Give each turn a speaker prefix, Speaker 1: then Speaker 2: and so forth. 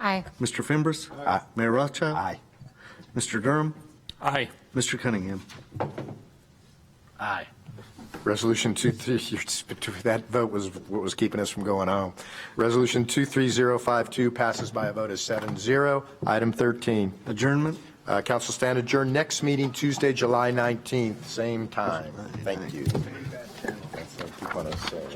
Speaker 1: Aye.
Speaker 2: Mr. Fimbres? Aye. Mayor Rothschild?
Speaker 3: Aye.
Speaker 2: Mr. Durham?
Speaker 4: Aye.
Speaker 2: Mr. Cunningham?
Speaker 3: Aye. Resolution 23, that vote was what was keeping us from going home. Resolution 23052 passes by a vote of 7-0. Item 13,
Speaker 2: Adjournment?
Speaker 3: uh, council stand adjourned. Next meeting Tuesday, July 19th, same time. Thank you. That's what I keep wanting to say.